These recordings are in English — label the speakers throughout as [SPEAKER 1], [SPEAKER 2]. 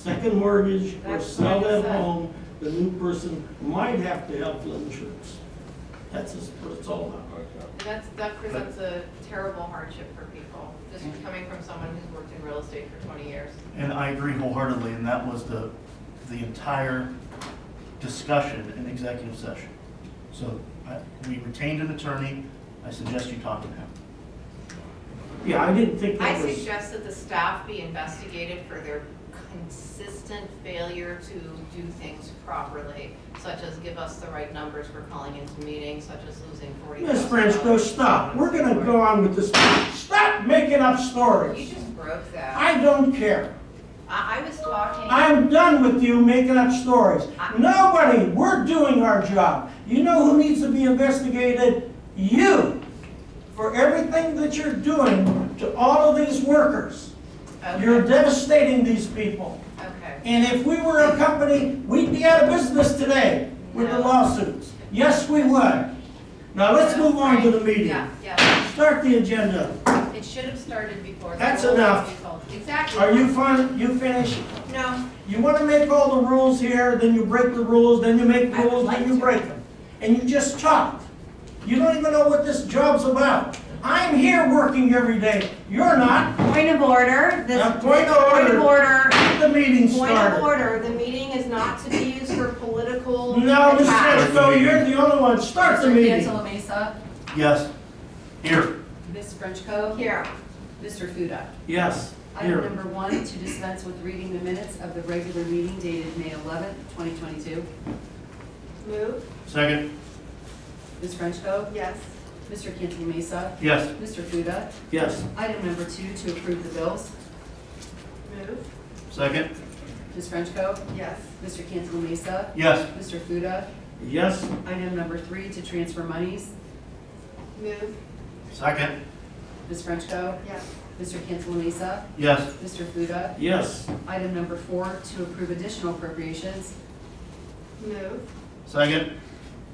[SPEAKER 1] second mortgage or
[SPEAKER 2] That's
[SPEAKER 1] sell
[SPEAKER 2] what I
[SPEAKER 1] that
[SPEAKER 2] said.
[SPEAKER 1] home, the new person might have to have flood insurance. That's as, that's all that.
[SPEAKER 2] And that's, that presents a terrible hardship for people, just
[SPEAKER 1] Mm-hmm.
[SPEAKER 2] coming from someone who's worked in real estate for twenty years.
[SPEAKER 3] And I agree wholeheartedly, and that was the, the entire discussion in executive session. So I- we retained an attorney, I suggest you talk to him.
[SPEAKER 1] Yeah, I didn't think
[SPEAKER 2] I
[SPEAKER 1] that was,
[SPEAKER 2] suggest that the staff be investigated for their consistent failure to do things properly, such as give us the right numbers for calling into meetings, such as losing forty thousand.
[SPEAKER 1] Miss Franco, stop. We're gonna go on with this. Stop making up
[SPEAKER 2] You
[SPEAKER 1] stories.
[SPEAKER 2] just broke that.
[SPEAKER 1] I don't care.
[SPEAKER 2] I, I was talking.
[SPEAKER 1] I'm done with you making up stories.
[SPEAKER 2] I-
[SPEAKER 1] Nobody, we're doing our job. You know who needs to be investigated? You, for everything that you're doing to all of these workers.
[SPEAKER 2] Okay.
[SPEAKER 1] You're devastating these people.
[SPEAKER 2] Okay.
[SPEAKER 1] And if we were a company, we'd be out of business today with the
[SPEAKER 2] No.
[SPEAKER 1] lawsuits. Yes, we would. Now, let's move on to the meeting.
[SPEAKER 2] Yeah, yeah.
[SPEAKER 1] Start the agenda.
[SPEAKER 2] It should have started before. the
[SPEAKER 1] That's
[SPEAKER 2] whole
[SPEAKER 1] enough.
[SPEAKER 2] thing was told. Exactly.
[SPEAKER 1] Are you fin, you finished?
[SPEAKER 2] No,
[SPEAKER 1] You want to make all the rules here, then you break the rules, then you make
[SPEAKER 2] I would
[SPEAKER 1] rules,
[SPEAKER 2] like
[SPEAKER 1] then you
[SPEAKER 2] to.
[SPEAKER 1] break them. And you just talk. You don't even know what this job's about. I'm here working every day. You're not.
[SPEAKER 4] Point of order, this.
[SPEAKER 1] Now, point of
[SPEAKER 4] Point of order,
[SPEAKER 1] Get the meeting
[SPEAKER 4] point of
[SPEAKER 1] started.
[SPEAKER 4] order, the meeting is not to be used for political
[SPEAKER 1] No, Ms.
[SPEAKER 4] attacks.
[SPEAKER 1] Frenchco, you're the only one. Start the
[SPEAKER 5] Mr.
[SPEAKER 1] meeting.
[SPEAKER 5] D'Angelo Mesa,
[SPEAKER 3] Yes, here,
[SPEAKER 5] Ms. Frenchco.
[SPEAKER 2] here.
[SPEAKER 5] Mr. Fuda.
[SPEAKER 1] Yes,
[SPEAKER 5] Item
[SPEAKER 1] here.
[SPEAKER 5] number one, to dispense with reading the minutes of the regular meeting dated May 11th, 2022.
[SPEAKER 2] Move,
[SPEAKER 3] second,
[SPEAKER 5] Ms. Frenchco.
[SPEAKER 2] yes.
[SPEAKER 5] Mr. D'Angelo Mesa.
[SPEAKER 3] yes,
[SPEAKER 5] Mr. Fuda.
[SPEAKER 1] Yes.
[SPEAKER 5] Item number two, to approve the bills.
[SPEAKER 2] Move,
[SPEAKER 3] second,
[SPEAKER 5] Ms. Frenchco.
[SPEAKER 2] yes.
[SPEAKER 5] Mr. D'Angelo Mesa.
[SPEAKER 3] yes,
[SPEAKER 5] Mr. Fuda.
[SPEAKER 1] Yes,
[SPEAKER 5] Item number three, to transfer monies.
[SPEAKER 2] Move,
[SPEAKER 3] second,
[SPEAKER 5] Ms. Frenchco.
[SPEAKER 2] yes.
[SPEAKER 5] Mr. D'Angelo Mesa.
[SPEAKER 3] yes,
[SPEAKER 5] Mr. Fuda.
[SPEAKER 1] yes,
[SPEAKER 5] Item number four, to approve additional appropriations.
[SPEAKER 2] Move,
[SPEAKER 3] second,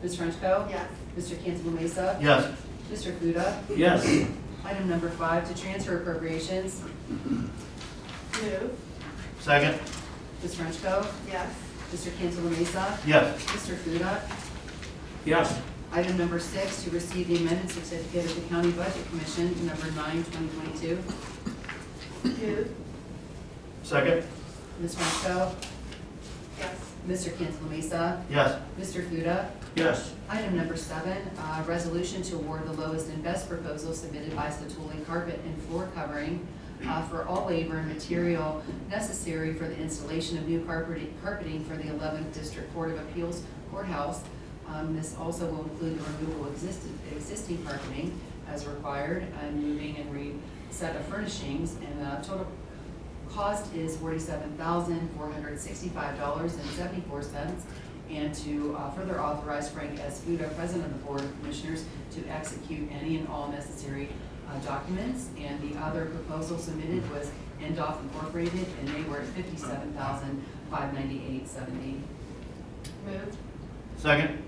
[SPEAKER 5] Ms. Frenchco.
[SPEAKER 2] yes.
[SPEAKER 5] Mr. D'Angelo Mesa.
[SPEAKER 3] yes,
[SPEAKER 5] Mr. Fuda.
[SPEAKER 1] yes,
[SPEAKER 5] Item number five, to transfer appropriations.
[SPEAKER 2] Move,
[SPEAKER 3] second,
[SPEAKER 5] Ms. Frenchco.
[SPEAKER 2] yes.
[SPEAKER 5] Mr. Cancelo Mesa.
[SPEAKER 3] yes,
[SPEAKER 5] Mr. Fuda.
[SPEAKER 1] yes,
[SPEAKER 5] Item number six, to receive the amended certificate of the County Budget Commission, number nine, 2022.
[SPEAKER 2] Move,
[SPEAKER 3] second,
[SPEAKER 5] Ms. Frenchco.
[SPEAKER 2] yes.
[SPEAKER 5] Mr. Cancelo Mesa.
[SPEAKER 3] yes,
[SPEAKER 5] Mr. Fuda.
[SPEAKER 1] yes,
[SPEAKER 5] Item number seven, uh, resolution to award the lowest and best proposal submitted by Stotole Carpet and Floor Covering uh, for all labor and material necessary for the installation of new carpeting carpeting for the 11th District Court of Appeals courthouse. Um, This also will include the removal of existing existing carpeting as required, and moving and reset of furnishings, and the total cost is forty-seven thousand, four hundred sixty-five dollars and seventy-four cents. And to uh, further authorize Frank S. Fuda, President of the Board of Commissioners, to execute any and all necessary uh, documents. And the other proposal submitted was Endoff Incorporated, and they were at fifty-seven thousand, five ninety-eight, seventy.
[SPEAKER 2] Move,
[SPEAKER 3] second,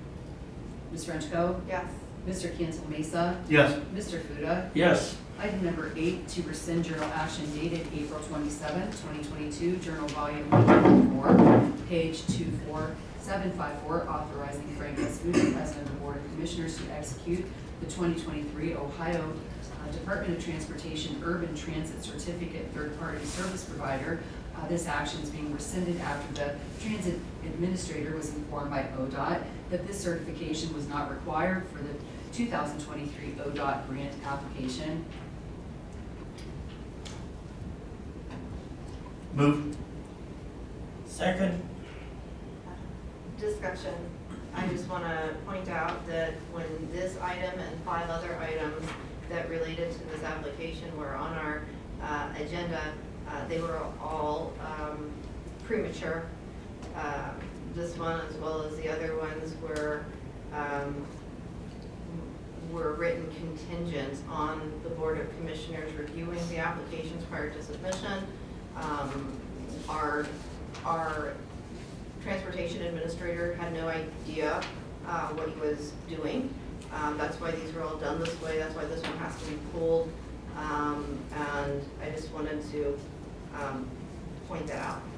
[SPEAKER 5] Ms. Frenchco.
[SPEAKER 2] yes.
[SPEAKER 5] Mr. Cancel Mesa.
[SPEAKER 3] yes,
[SPEAKER 5] Mr. Fuda.
[SPEAKER 1] yes,
[SPEAKER 5] Item number eight, to rescind journal action dated April twenty-seventh, twenty twenty-two, Journal Volume one twenty-four, page two four seven five four, authorizing Frank S. Booth, President of the Board of Commissioners, to execute the twenty twenty-three Ohio uh, Department of Transportation Urban Transit Certificate Third-Party Service Provider. Uh, This action is being rescinded after the transit administrator was informed by ODOT that this certification was not required for the two thousand twenty-three ODOT grant application.
[SPEAKER 3] move,
[SPEAKER 1] second,
[SPEAKER 2] Discussion. I just want to point out that when this item and five other items that related to this application were on our uh, agenda, uh, they were all um, premature. Uh, This one, as well as the other ones, were, um, were written contingent on the Board of Commissioners reviewing the applications prior to submission. Um, Our, our transportation administrator had no idea uh, what he was doing. Um, That's why these were all done this way, that's why this one has to be pulled. Um, And I just wanted to um, point that out.